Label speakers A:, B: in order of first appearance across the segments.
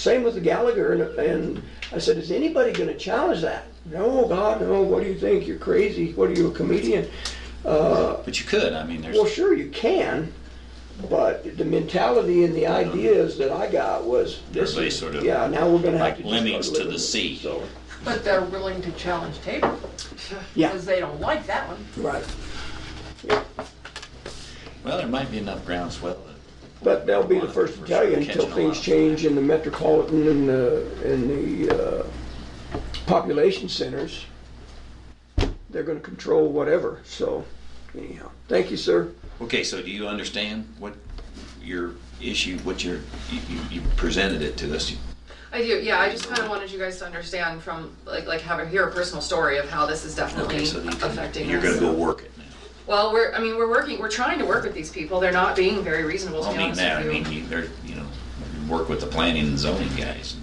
A: Same with Gallagher, and, and I said, is anybody gonna challenge that? No, God, no, what do you think, you're crazy, what are you, a comedian?
B: But you could, I mean, there's,
A: Well, sure, you can, but the mentality and the ideas that I got was, this
B: Everybody
A: is,
B: sort of
A: yeah, now we're gonna have
B: like
A: to. just
B: lemmings
A: start
B: to the
A: living with it."
B: sea.
A: So,
C: But they're willing to challenge Tabor,
A: yeah,
C: because they don't like that one.
A: right.
B: well, there might be enough groundswell.
A: But they'll be the first to tell you until things change in the metropolitan and the, and the, uh, population centers. They're gonna control whatever, so anyhow, thank you, sir.
B: Okay, so do you understand what your issue, what your, you, you- you presented it to us?
D: I do, yeah, I just kind of wanted you guys to understand from, like, like have a, hear a personal story of how this is definitely
B: Okay, so you can-
D: affecting us.
B: You're gonna go work it now.
D: Well, we're, I mean, we're working, we're trying to work with these people, they're not being very reasonable, to
B: I
D: be
B: mean
D: honest
B: that, I
D: with you.
B: mean, you- they're, you know, you work with the planning and zoning guys.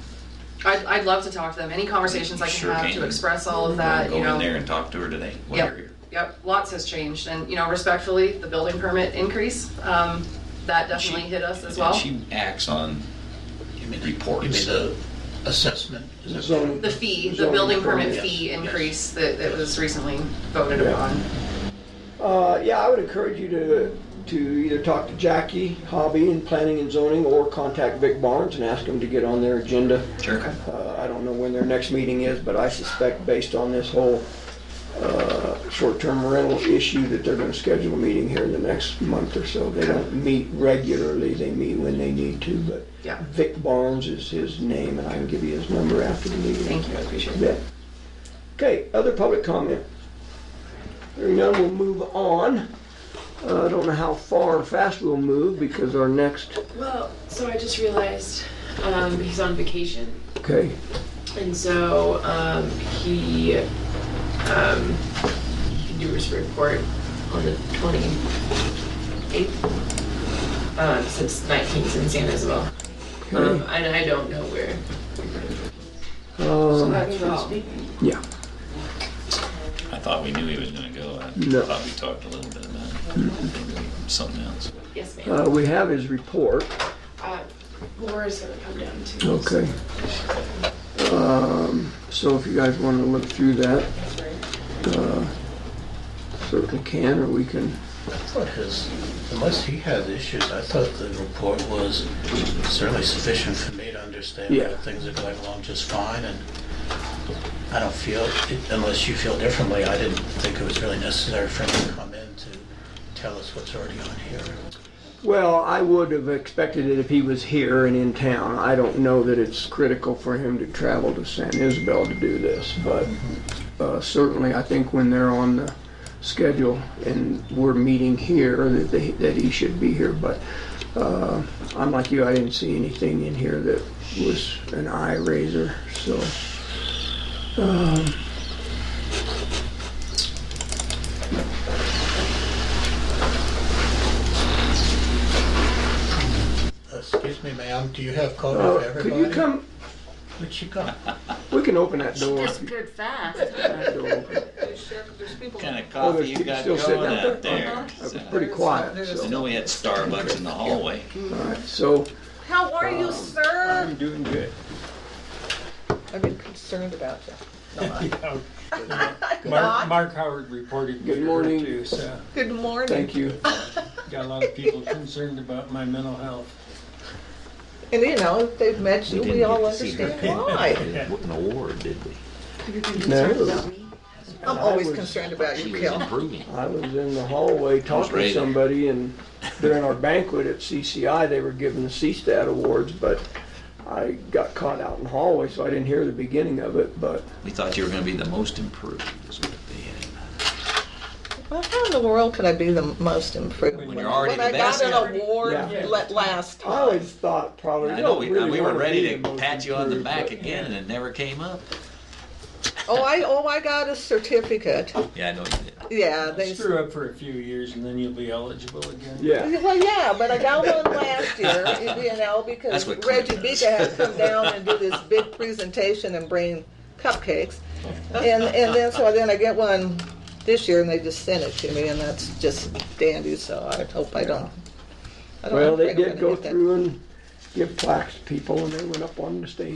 D: I'd, I'd love to talk to them, any conversations I can
B: Sure
D: have
B: can.
D: to express all of that, you
B: Go in
D: know.
B: there and talk to her today while you're
D: Yep,
B: here.
D: yep, lots has changed, and, you know, respectfully, the building permit increase, um, that definitely
B: She-
D: hit us as
B: and
D: well.
B: She acts on
E: You mean-
B: Reports.
E: You mean the assessment? Is that-
A: Zoning-
D: The fee, the
A: zoning
D: building permit
A: yes.
D: fee
E: yes.
D: increase that, that was recently voted
A: Yeah.
D: upon.
A: Uh, yeah, I would encourage you to, to either talk to Jackie Hobby in planning and zoning or contact Vic Barnes and ask him to get on their agenda.
B: Sure.
A: Uh, I don't know when their next meeting is, but I suspect based on this whole, uh, short-term rental issue that they're gonna schedule a meeting here in the next month or so. They don't meet regularly, they meet when they need to, but
D: Yeah.
A: Vic Barnes is his name and I can give you his number after the meeting.
D: Thank you, I appreciate it.
A: Yeah. Okay, other public comment? Hearing none, we'll move on. Uh, I don't know how far or fast we'll move because our next,
F: Well, so I just realized um, he's on vacation,
A: okay,
F: and so um, he um, he can do his report on the twenty eighth. Um, since 19th in San Isabel, um,
A: okay.
F: and I don't know where.
A: Um,
F: That's all.
A: Yeah,
B: I thought we knew he was gonna go. I
A: No.
B: thought we talked a little bit about it. Maybe Something else.
F: Yes, ma'am.
A: uh, we have his report,
F: Uh, Laura's gonna come down too.
A: okay. Um, So if you guys want to look through that, uh, certainly can, or we can,
E: I thought his, unless he has issues, I thought the report was certainly sufficient for me to understand
A: Yeah.
E: that things are going along just fine, and I don't feel, unless you feel differently, I didn't think it was really necessary for him to come in to tell us what's already on here.
A: well, I would have expected it if he was here and in town. I don't know that it's critical for him to travel to San Isabel to do this, but uh, certainly, I think when they're on the schedule and we're meeting here, that they, that he should be here, but, uh, I'm like you, I didn't see anything in here that was an eye raiser, so. um,
E: Excuse me, ma'am, do you have coffee for
A: uh, Could
E: everybody?
A: you come,
E: What you got?
A: we can open that door. if you-
G: disappeared fast.
A: that door open.
B: What kind of
A: Oh,
B: coffee
A: there's
B: you
A: people
B: got
A: still sitting
B: going
A: out
B: out
A: there.
B: there?
A: Uh-huh. It was pretty quiet,
B: I
A: so,
B: know we had Starbucks in the hallway.
A: all right, so,
C: How are you, sir?
A: I'm doing good.
C: I've been concerned about you.
H: Mark, Mark Howard reported.
A: Good morning.
H: too, so
C: Good morning.
A: Thank you.
H: Got a lot of people concerned about my mental health.
C: And you know, if they've met you, we all understand why.
I: an award, did we?
A: No,
C: I'm
A: I
C: always
A: was-
C: concerned about you,
I: She was
C: Kel.
I: improving.
A: I was in the hallway talking to
B: raided.
A: somebody and during our banquet at CCI, they were giving the CSTAT awards, but I got caught out in the hallway, so I didn't hear the beginning of it, but
B: We thought you were gonna be the most improved, is what they had.
C: Well, how in the world could I be the most improved?
H: When
C: When
H: you're
B: already
C: when
B: the
C: I got
B: best.
C: an award
A: Yeah.
C: let
A: I
C: last time.
A: always thought probably.
B: I
A: you
B: know,
A: don't
B: we,
A: really
B: we were
A: wanna be
B: ready
A: the
B: to
A: most
B: pat you on the
A: improved,
B: back
A: but-
B: again, and it never came up.
C: Oh, I, oh, I got a certificate.
B: Yeah, I know you did.
C: Yeah, they,
H: Screw up for a few years and then you'll be eligible again.
A: Yeah.
C: well, yeah, but I got one last year, you know, because
B: That's what Clint
C: Reggie
B: does.
C: Bika had to come down and do this big presentation and bring cupcakes. And, and then, so then I get one this year and they just sent it to me and that's just dandy, so I hope I don't. I don't
A: Well,
C: think
A: they
C: I'm
A: did
C: gonna
A: go
C: get that.
A: through and give plaques to people and they went up on the stage